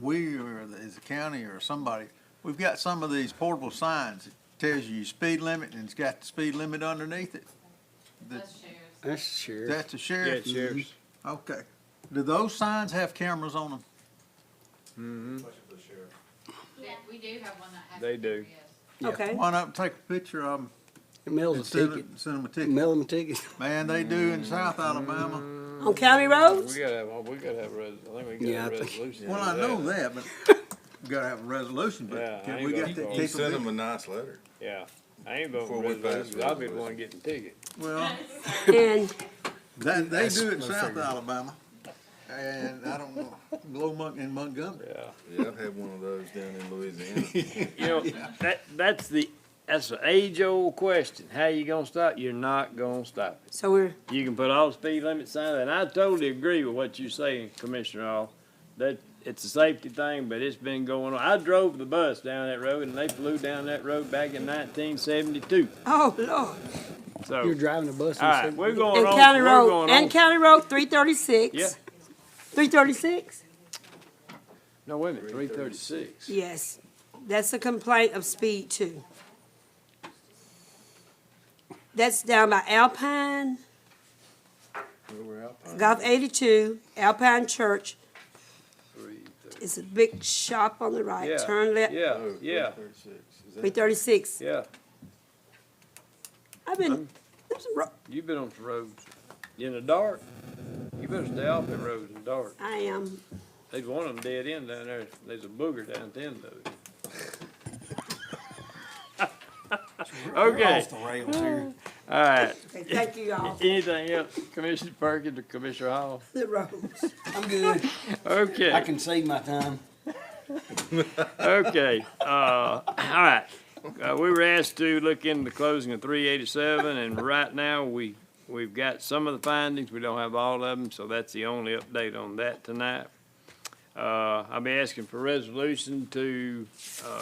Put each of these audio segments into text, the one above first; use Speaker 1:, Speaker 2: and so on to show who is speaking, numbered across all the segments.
Speaker 1: we or the- as a county or somebody, we've got some of these portable signs that tells you your speed limit and it's got the speed limit underneath it. That-
Speaker 2: That's shares.
Speaker 3: That's sure.
Speaker 1: That's the sheriff. Mm-hmm. Okay. Do those signs have cameras on them?
Speaker 3: Mm-hmm.
Speaker 2: They- We do have one that has.
Speaker 4: They do.
Speaker 2: cameras, yes.
Speaker 3: Yeah.
Speaker 5: Okay.
Speaker 1: Why not take a picture of them
Speaker 3: Mail
Speaker 1: and
Speaker 3: them
Speaker 1: send
Speaker 3: a ticket. Mm-hmm.
Speaker 1: them, send them a ticket?
Speaker 3: Mail them a ticket.
Speaker 1: Man, they do in South Alabama.
Speaker 5: On county roads?
Speaker 4: We gotta have, oh, we gotta have, res- I think we
Speaker 3: Yeah,
Speaker 4: gotta have
Speaker 3: I think-
Speaker 4: resolution.
Speaker 1: Well, I
Speaker 4: for
Speaker 1: know that, but we gotta have a resolution,
Speaker 4: Yeah,
Speaker 1: but
Speaker 4: I
Speaker 1: can
Speaker 4: ain't
Speaker 1: we
Speaker 4: got
Speaker 1: got
Speaker 4: the
Speaker 1: that
Speaker 4: call.
Speaker 6: You send them
Speaker 1: capability?
Speaker 6: a nice letter.
Speaker 4: Yeah, I ain't voting
Speaker 6: Before
Speaker 4: for
Speaker 6: we pass
Speaker 4: resolution, I'll be the
Speaker 6: resolution.
Speaker 4: one getting ticket.
Speaker 1: Well,
Speaker 5: And
Speaker 1: that, they
Speaker 3: That's
Speaker 1: do it in
Speaker 3: my
Speaker 1: South
Speaker 3: figure.
Speaker 1: Alabama. And I don't know, Blow Monk in Montgomery.
Speaker 4: Yeah.
Speaker 6: Yeah, I've had one of those down in Louisiana.
Speaker 4: You know, that, that's the, that's the age-old question. How you gonna stop? You're not gonna stop it.
Speaker 5: so we're,
Speaker 4: You can put all the speed limit signs, and I totally agree with what you're saying, Commissioner Hall. That, it's a safety thing, but it's been going on. I drove the bus down that road, and they flew down that road back in nineteen seventy-two,
Speaker 5: oh, Lord.
Speaker 4: so.
Speaker 3: You're driving a bus.
Speaker 4: Oh. All right,
Speaker 3: and
Speaker 4: we're going
Speaker 5: And
Speaker 4: on.
Speaker 5: county
Speaker 4: we're
Speaker 5: road,
Speaker 4: going
Speaker 5: and
Speaker 4: on.
Speaker 5: county road, three thirty-six.
Speaker 4: Yeah.
Speaker 5: Three thirty-six?
Speaker 4: No, wait a minute. Three thirty-six.
Speaker 5: Yes. That's a complaint of speed too. That's down by Alpine, Gulf eighty-two, Alpine Church. It's a big shop on the right,
Speaker 4: Yeah,
Speaker 5: turn left,
Speaker 4: Yeah, yeah,
Speaker 5: three thirty-six.
Speaker 4: yeah.
Speaker 5: I've been, there's a ro-
Speaker 4: You've been on some roads in the dark. You better stay off them roads in the dark.
Speaker 5: I am,
Speaker 4: There's one of them dead end down there. There's a booger down at the end of it. Okay,
Speaker 1: rails here.
Speaker 4: all right.
Speaker 5: okay, thank you all,
Speaker 4: Anything else, Commissioner Perkins or Commissioner Hall?
Speaker 5: the roads.
Speaker 3: I'm good. I
Speaker 4: Okay,
Speaker 3: can save my time.
Speaker 4: okay, uh, all right. Uh, we were asked to look into the closing of three eighty-seven, and right now, we, we've got some of the findings, we don't have all of them, so that's the only update on that tonight. Uh, I'll be asking for resolution to, uh,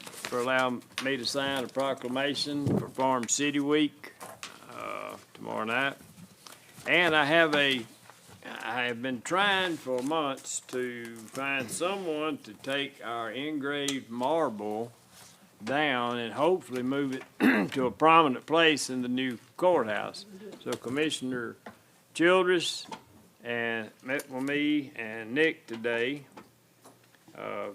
Speaker 4: for allow me to sign a proclamation for Farm City Week, uh, tomorrow night. And I have a I have been trying for months to find someone to take our engraved marble down and hopefully move it to a prominent place in the new courthouse. So Commissioner Childress and met with me and Nick today. Uh,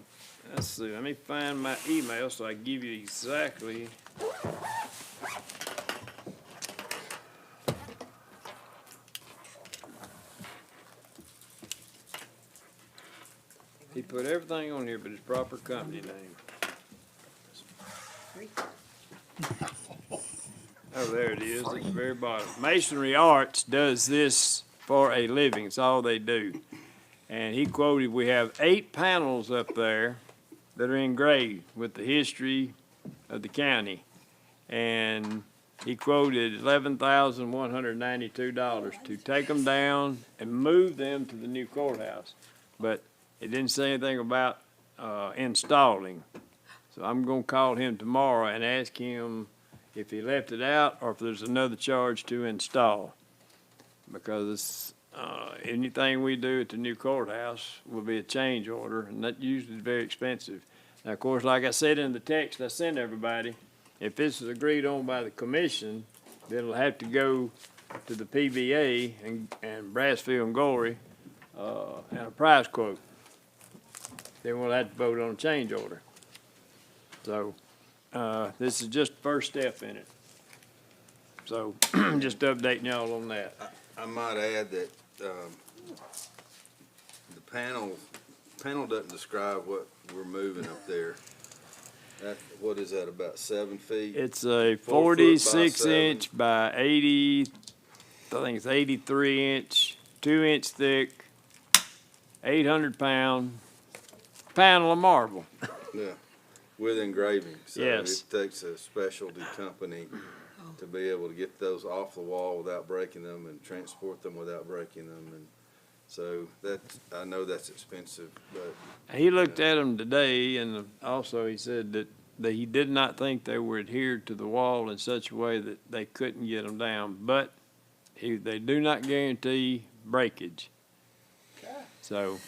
Speaker 4: let's see, let me find my email so I can give you exactly. He put everything on here but his proper company name. Oh, there it is, at the very bottom. Masonry Arts does this for a living, it's all they do. And he quoted, we have eight panels up there that are engraved with the history of the county. And he quoted eleven thousand one hundred ninety-two dollars to take them down and move them to the new courthouse. But it didn't say anything about, uh, installing. So I'm gonna call him tomorrow and ask him if he left it out or if there's another charge to install. Because, uh, anything we do at the new courthouse will be a change order and that usually is very expensive. Now, of course, like I said in the text I sent everybody, if this is agreed on by the commission, then it'll have to go to the PBA and, and Brassfield and Glory, uh, and a price quote. Then we'll have to vote on a change order. So, uh, this is just the first step in it. So, just updating y'all on that.
Speaker 6: I might add that, um, the panel, panel doesn't describe what we're moving up there. That, what is that, about seven feet?
Speaker 4: It's a
Speaker 6: Four foot by
Speaker 4: forty-six inch by eighty, I think it's eighty-three inch, two inch thick, eight hundred pound panel of marble.
Speaker 6: Yeah, with engraving. So
Speaker 4: Yes.
Speaker 6: It takes a specialty company to be able to get those off the wall without breaking them and transport them without breaking them. And so that, I know that's expensive, but
Speaker 4: He looked at them today, and also he said that, that he did not think they were adhered to the wall in such a way that they couldn't get them down, but he, they do not guarantee breakage. So,